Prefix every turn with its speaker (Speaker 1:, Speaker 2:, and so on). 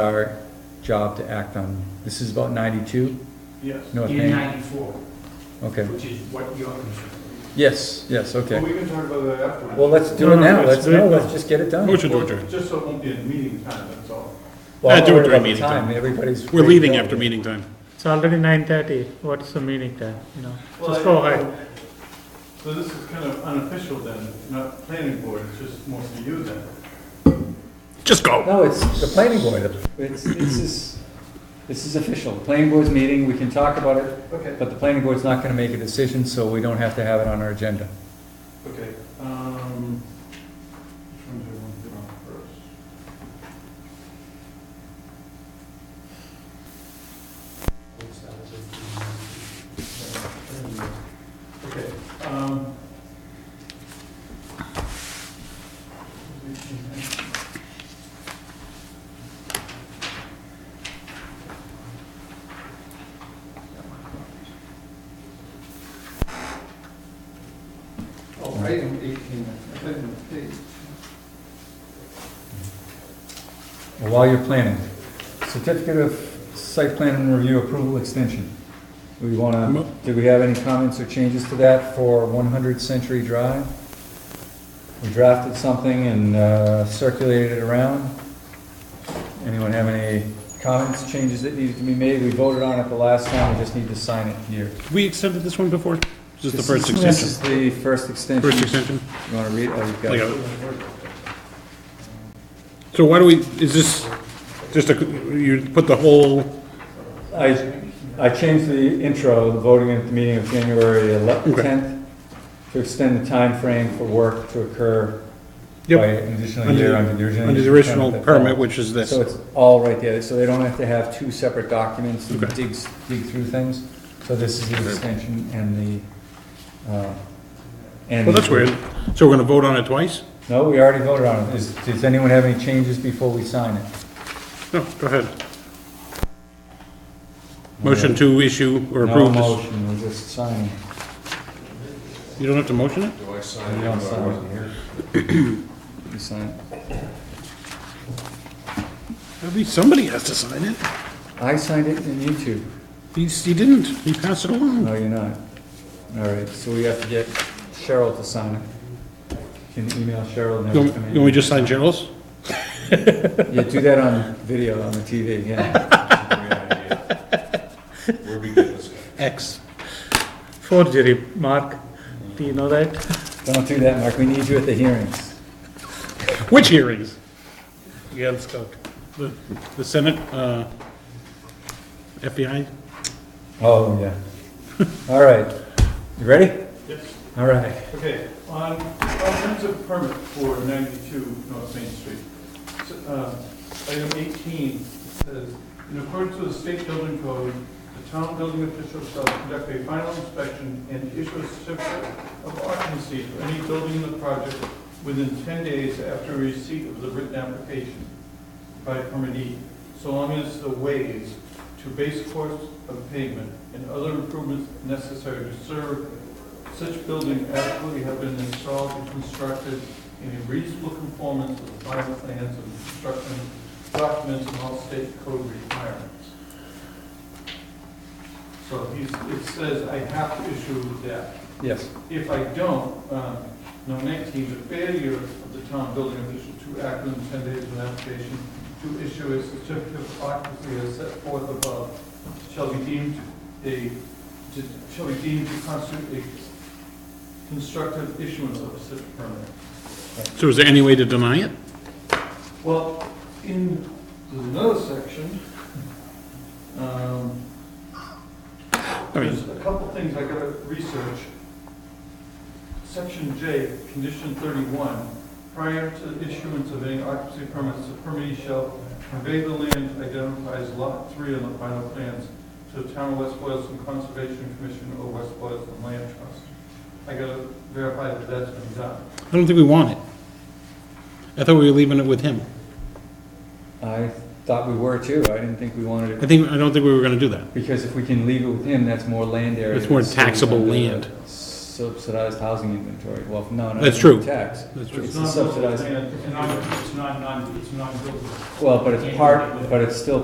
Speaker 1: our job to act on. This is about 92?
Speaker 2: Yes.
Speaker 1: North
Speaker 3: in
Speaker 1: Main?
Speaker 3: ninety-four,
Speaker 1: Okay.
Speaker 3: which is what you're concerned.
Speaker 1: Yes, yes,
Speaker 2: Well,
Speaker 1: okay.
Speaker 2: we can talk about that afterwards.
Speaker 1: Well, let's do
Speaker 4: No,
Speaker 1: it
Speaker 4: no,
Speaker 1: now.
Speaker 4: it's
Speaker 1: Let's,
Speaker 4: very-
Speaker 1: no, let's just get it done.
Speaker 4: Motion to
Speaker 2: Well,
Speaker 4: adjourn.
Speaker 2: Just so it won't be in meeting time, that's all.
Speaker 1: Well,
Speaker 4: Yeah, do it
Speaker 1: worry
Speaker 4: during
Speaker 1: about the
Speaker 4: meeting time.
Speaker 1: Everybody's.
Speaker 4: We're leaving after meeting time.
Speaker 5: It's already nine thirty, what's the meaning there, you know? Just
Speaker 2: Well,
Speaker 5: go
Speaker 2: I-
Speaker 5: ahead.
Speaker 2: So this is kind of unofficial then, not planning board, it's just mostly you then.
Speaker 4: Just go.
Speaker 1: No, it's the planning board. It's, this is, this is official. The Planning board's meeting, we can talk about it,
Speaker 2: Okay.
Speaker 1: but the planning board's not gonna make a decision, so we don't have to have it on our agenda.
Speaker 2: Okay, um, which one do I want to do on first? Okay, um. Oh, item eighteen, amendment page.
Speaker 1: While you're planning, certificate of site plan and review approval extension. We wanna, do we have any comments or changes to that for one hundred Century Drive? We drafted something and, uh, circulated it around. Anyone have any comments, changes that needed to be made? We voted on it the last time, we just need to sign it here.
Speaker 4: We extended this one before? Just the first
Speaker 1: This is-
Speaker 4: extension?
Speaker 1: This is the first extension.
Speaker 4: First extension?
Speaker 1: You wanna read, oh, you've got
Speaker 4: I
Speaker 1: it.
Speaker 4: got it. So why do we, is this just a, you put the whole,
Speaker 1: I, I changed the intro, the voting at the meeting of January ele-
Speaker 4: Okay.
Speaker 1: 10th, to extend the time frame for work to occur by
Speaker 4: Yep.
Speaker 1: an additional
Speaker 4: Under-
Speaker 1: year under the original.
Speaker 4: under the original
Speaker 1: that
Speaker 4: permit,
Speaker 1: fell.
Speaker 4: which is this?
Speaker 1: So it's all right there, so they don't have to have two separate documents to
Speaker 4: Okay.
Speaker 1: dig, s- dig through things. So this is the extension and the, uh, and.
Speaker 4: Well, that's weird. So we're gonna vote on it twice?
Speaker 1: No, we already voted on it. Is, does anyone have any changes before we sign it?
Speaker 4: No, go ahead. Motion to issue or
Speaker 1: No
Speaker 4: approve this?
Speaker 1: motion, we're just signing.
Speaker 4: You don't have to motion it?
Speaker 1: You don't sign it here. You sign it.
Speaker 4: At least somebody has to sign it.
Speaker 1: I signed it in YouTube.
Speaker 4: He, he didn't. He passed it along.
Speaker 1: No, you're not. All right, so we have to get Cheryl to sign it. Can you email Cheryl and
Speaker 4: You
Speaker 1: have
Speaker 4: want
Speaker 1: her come in?
Speaker 4: you want me to just sign Cheryl's?
Speaker 1: Yeah, do that on video, on the TV, yeah.
Speaker 6: Where we get this guy?
Speaker 4: X.
Speaker 5: Forgery, Mark, do you know that?
Speaker 1: Don't do that, Mark, we need you at the hearings.
Speaker 4: Which hearings? Yeah, let's go. The, the Senate, uh, FBI?
Speaker 1: Oh, yeah. All right, you ready?
Speaker 2: Yes.
Speaker 1: All right.
Speaker 2: Okay, on comprehensive permit for 92 North Main Street, s- uh, item 18 says, in accordance with the state building code, the town building official shall conduct a final inspection and issue a certificate of occupancy for any building in the project within 10 days after receipt of the written application by permittee, so long as the ways to base course of pavement and other improvements necessary to serve such building adequately have been installed and constructed in a reasonable conformance with the final plans and construction documents and all state code requirements. So he's, it says I have to issue that.
Speaker 1: Yes,
Speaker 2: If I don't, um, number 19, the failure of the town building official to act within 10 days of an application to issue a certificate of occupancy as set forth above shall be deemed a, to- shall be deemed to constitute a constructive issuance of such permit.
Speaker 4: So is there any way to deny it?
Speaker 2: Well, in, there's another section, um,
Speaker 4: I mean,
Speaker 2: There's a couple things I gotta research. Section J, condition thirty-one, prior to issuance of any occupancy permits, the permittee shall convey the land identified as lot three on the final plans to the town of West Boylston Conservation Commission or West Boylston Land Trust. I gotta verify that that's been done.
Speaker 4: I don't think we want it. I thought we were leaving it with him.
Speaker 1: I thought we were too, I didn't think we wanted
Speaker 4: I
Speaker 1: it,
Speaker 4: think, I don't think we were gonna do that.
Speaker 1: because if we can leave it with him, that's more land area.
Speaker 4: It's more
Speaker 1: that's sitting
Speaker 4: taxable
Speaker 1: under the
Speaker 4: land.
Speaker 1: s- subsidized housing inventory. Well, no, no.
Speaker 4: That's
Speaker 1: it's not
Speaker 4: true.
Speaker 1: Tax.
Speaker 4: That's true.
Speaker 1: It's
Speaker 2: It's
Speaker 1: a
Speaker 2: not
Speaker 1: subsidized,
Speaker 2: buildable land, It's not, it's not, non- it's not buildable.
Speaker 1: well, but it's part, but it's still